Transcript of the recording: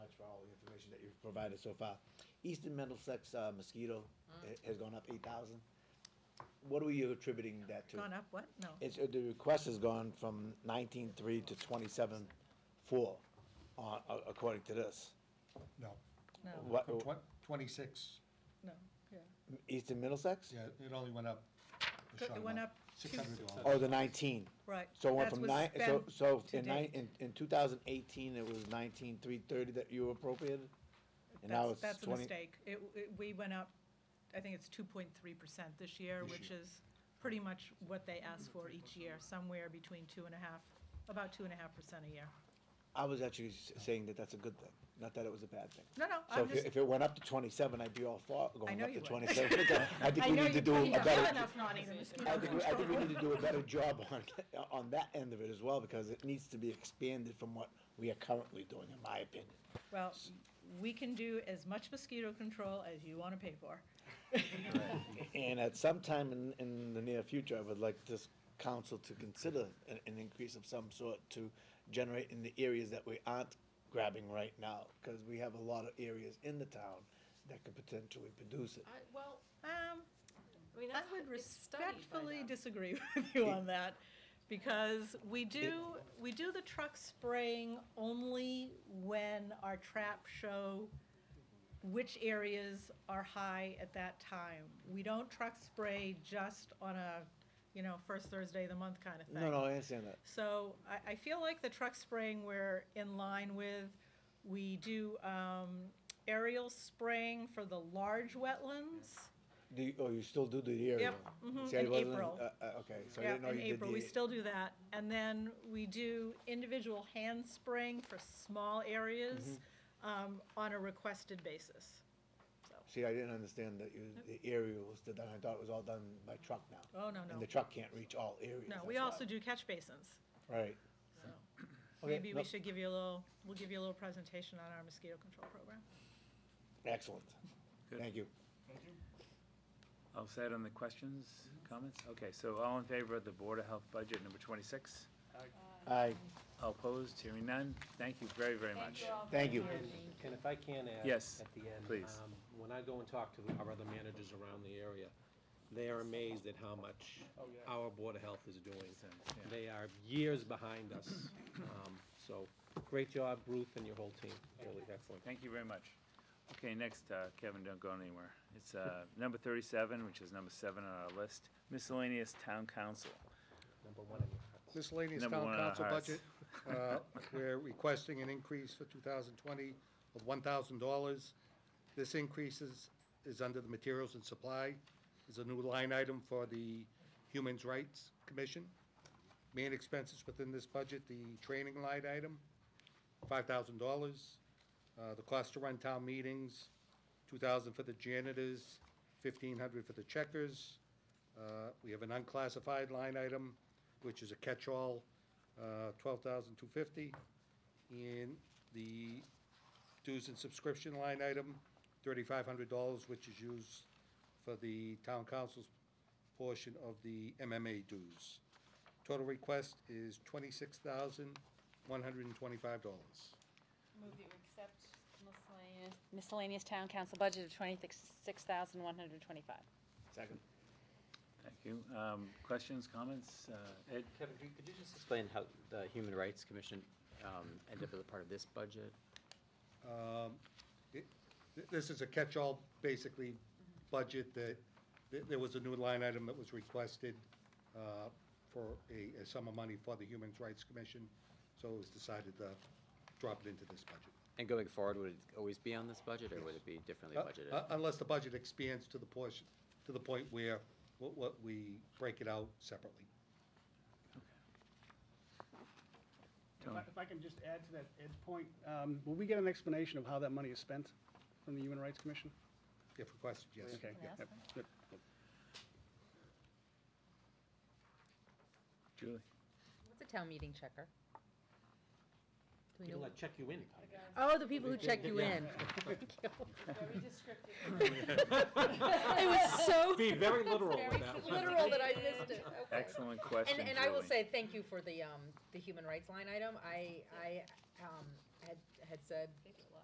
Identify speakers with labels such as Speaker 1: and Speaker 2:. Speaker 1: provided so far. Eastern Middlesex uh, mosquito
Speaker 2: Mm-hmm.
Speaker 1: ha- has gone up eight thousand. What are you attributing that to?
Speaker 2: Gone up what? No.
Speaker 1: It's, uh, the request has gone from nineteen-three to twenty-seven-four, uh, a- according to this.
Speaker 3: No,
Speaker 2: No,
Speaker 1: What,
Speaker 3: Twen- twenty-six,
Speaker 2: no, yeah.
Speaker 1: Eastern Middlesex?
Speaker 3: yeah, it only went up. a
Speaker 2: It
Speaker 3: short
Speaker 2: went
Speaker 3: amount,
Speaker 2: up two-
Speaker 3: $600.
Speaker 1: Oh, the nineteen.
Speaker 2: Right.
Speaker 1: So it went
Speaker 2: That's
Speaker 1: from
Speaker 2: what's
Speaker 1: nine, so,
Speaker 2: spent
Speaker 1: so
Speaker 2: to
Speaker 1: in nine,
Speaker 2: date.
Speaker 1: in, in two thousand eighteen, it was nineteen-three thirty that you appropriated? And now
Speaker 2: That's,
Speaker 1: it's
Speaker 2: that's a
Speaker 1: twenty,
Speaker 2: mistake. It, it- we went up, I think it's two point three percent this year,
Speaker 3: This
Speaker 2: which
Speaker 3: year.
Speaker 2: is pretty much what they ask for each year, somewhere between two and a half, about two and a half percent a year.
Speaker 1: I was actually s- saying that that's a good thing, not that it was a bad thing.
Speaker 2: No, no,
Speaker 1: So
Speaker 2: I'm
Speaker 1: if, it-
Speaker 2: just,
Speaker 1: if it went up to twenty-seven, I'd be all for going
Speaker 2: know
Speaker 1: up
Speaker 2: you
Speaker 1: to
Speaker 2: would.
Speaker 1: twenty-seven. I think
Speaker 2: I
Speaker 1: we
Speaker 2: know
Speaker 1: need to
Speaker 2: you,
Speaker 1: do a
Speaker 2: but you don't have
Speaker 1: better,
Speaker 2: enough nodding in
Speaker 1: I
Speaker 2: mosquito
Speaker 1: think, we- I think we
Speaker 2: control.
Speaker 1: need to do a better job on, on that end of it as well, because it needs to be expanded from what we are currently doing, in my opinion.
Speaker 2: Well, we can do as much mosquito control as you wanna pay for.
Speaker 1: And at some time in, in the near future, I would like this council to consider an, an increase of some sort to generate in the areas that we aren't grabbing right now, because we have a lot of areas in the town that could potentially produce it.
Speaker 4: I, well,
Speaker 2: Um,
Speaker 4: I mean,
Speaker 2: I
Speaker 4: that's,
Speaker 2: would
Speaker 4: it's studied by
Speaker 2: respectfully
Speaker 4: them.
Speaker 2: disagree with you on that, because we do, we do the truck spraying only when our trap show which areas are high at that time. We don't truck spray just on a, you know, first Thursday of the month kind of thing.
Speaker 1: No, no, I understand that.
Speaker 2: So I, I feel like the truck spraying we're in line with. We do um, aerial spraying for the large wetlands.
Speaker 1: Do you, oh, you still do the year?
Speaker 2: Yep, mhm, in April.
Speaker 1: Uh, uh, okay, so I
Speaker 2: Yeah,
Speaker 1: didn't know you
Speaker 2: in
Speaker 1: did the. e-,
Speaker 2: April, we still do that. And then we do individual hand spraying for small areas
Speaker 1: Mm-hmm.
Speaker 2: um, on a requested basis.
Speaker 1: See, I didn't understand that you, the area was the done, I thought it was all done by truck now.
Speaker 2: Oh, no,
Speaker 1: And
Speaker 2: no.
Speaker 1: the truck can't reach all areas.
Speaker 2: No,
Speaker 1: that's
Speaker 2: we also
Speaker 1: why.
Speaker 2: do catch basins,
Speaker 1: Right.
Speaker 2: so
Speaker 1: Okay,
Speaker 2: maybe
Speaker 1: no,
Speaker 2: we should give you a little, we'll give you a little presentation on our mosquito control program.
Speaker 1: Excellent,
Speaker 5: Good.
Speaker 1: thank you.
Speaker 5: All set on the questions, comments? Okay, so all in favor of the Board of Health budget number 26?
Speaker 1: I,
Speaker 5: All opposed, hearing none? Thank you very, very much.
Speaker 1: thank you.
Speaker 6: And if I can add.
Speaker 5: Yes,
Speaker 6: At the end.
Speaker 5: please.
Speaker 6: um, When I go and talk to our other managers around the area, they are amazed at how much
Speaker 7: Oh,
Speaker 6: our Board of Health is doing.
Speaker 5: Yeah.
Speaker 6: They are years behind us. Um, So, great job, Ruth and your whole team. Really excellent.
Speaker 5: Thank you very much. Okay, next, uh, Kevin, don't go anywhere. It's uh, number 37, which is number seven on our list, miscellaneous town council.
Speaker 6: Number one in your hearts.
Speaker 3: Miscellaneous
Speaker 5: Number
Speaker 3: town
Speaker 5: one on our
Speaker 3: council
Speaker 5: hearts.
Speaker 3: budget, uh, we're requesting an increase for 2020 of $1,000. This increase is, is under the materials and supply, is a new line item for the Human Rights Commission. Main expenses within this budget, the training line item, $5,000. Uh, The cost to run town meetings, 2,000 for the janitors, 1,500 for the checkers. Uh, We have an unclassified line item, which is a catch-all, uh, 12,250. And the dues and subscription line item, $3,500, which is used for the town council's portion of the MMA dues. Total request is
Speaker 8: Move
Speaker 3: $26,125.
Speaker 8: that we accept miscellaneous, miscellaneous town council budget of twenty-six thousand one hundred twenty-five.
Speaker 1: Second.
Speaker 5: Thank you. Um, Questions, comments? Uh, Ed?
Speaker 9: Kevin, could could you just explain how the Human Rights Commission um, ended up as a part of this budget?
Speaker 3: Um, It- th- This is a catch-all, basically, budget that, th- there was a new line item that was requested uh, for a a sum of money for the Human Rights Commission, so it was decided to drop it into this budget.
Speaker 9: And going forward, would it always be on this budget, or would it be differently budgeted?
Speaker 3: Uh, Unless the budget expands to the portion, to the point where, what- what, we break it out separately.
Speaker 7: If I- if I can just add to that, Ed's point, um, will we get an explanation of how that money is spent from the Human Rights Commission?
Speaker 3: If requested, yes.
Speaker 7: Okay, yep, yep, good.
Speaker 5: Julie?
Speaker 10: What's a town meeting checker? Do we
Speaker 6: People
Speaker 10: know?
Speaker 6: that check you in.
Speaker 10: Oh, the people who check you in.
Speaker 8: Very descriptive.
Speaker 10: It was so
Speaker 6: Be very literal
Speaker 8: Very
Speaker 6: with that one.
Speaker 10: literal that I missed it. Okay.
Speaker 5: Excellent question,
Speaker 10: And, and
Speaker 5: Julie.
Speaker 10: I will say, thank you for the, um, the human rights line item. I, I, um, had, had said